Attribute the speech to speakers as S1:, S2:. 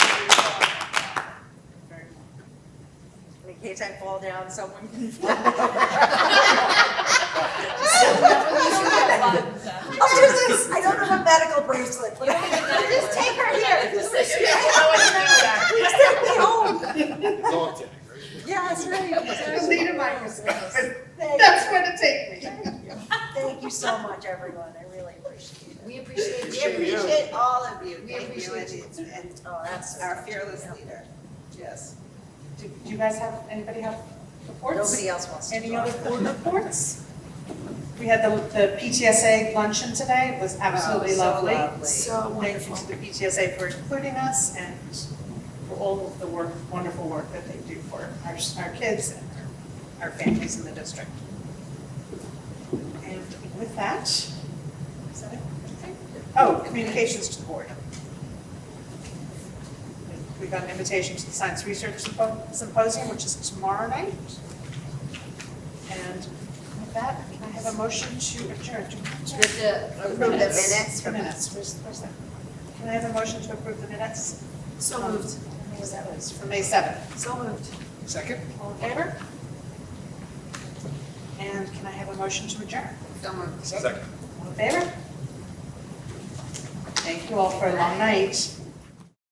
S1: in case I fall down, someone can. I'll do this, I don't have a medical bracelet, but I'll just take her here. Just take me home.
S2: Dog tag,
S1: Yeah, that's right. exactly.
S3: Lead a microservice.
S1: Thank you.
S3: That's where to take me.
S1: Thank you so much, everyone, I really appreciate it.
S4: We appreciate
S2: Appreciate
S4: you.
S3: We appreciate all of you.
S4: We
S3: Thank you,
S4: appreciate
S3: and- And
S1: Oh, that's
S3: our fearless leader, yes.
S5: Do do you guys have, anybody have reports?
S1: Nobody else wants to
S5: Any
S1: talk.
S5: other board reports? We had the the PTSA luncheon today, it was absolutely
S3: Oh, so
S5: lovely.
S3: lovely.
S5: So wonderful. Thank you to the PTSA for including us and for all of the work, wonderful work that they do for our, our kids and our our families in the district. And with that, is that it? Okay. Oh, communications to the board. We got an invitation to the Science Research Sympo- Symposium, which is tomorrow night. And with that, can I have a motion to adjourn? Do-
S4: With the-
S3: Approve the minutes.
S5: Minutes, where's, where's that? Can I have a motion to approve the minutes? So moved. That was for May 7th. So moved.
S2: Second?
S5: All in favor? And can I have a motion to adjourn?
S2: Second.
S5: All in favor? Thank you all for a long night.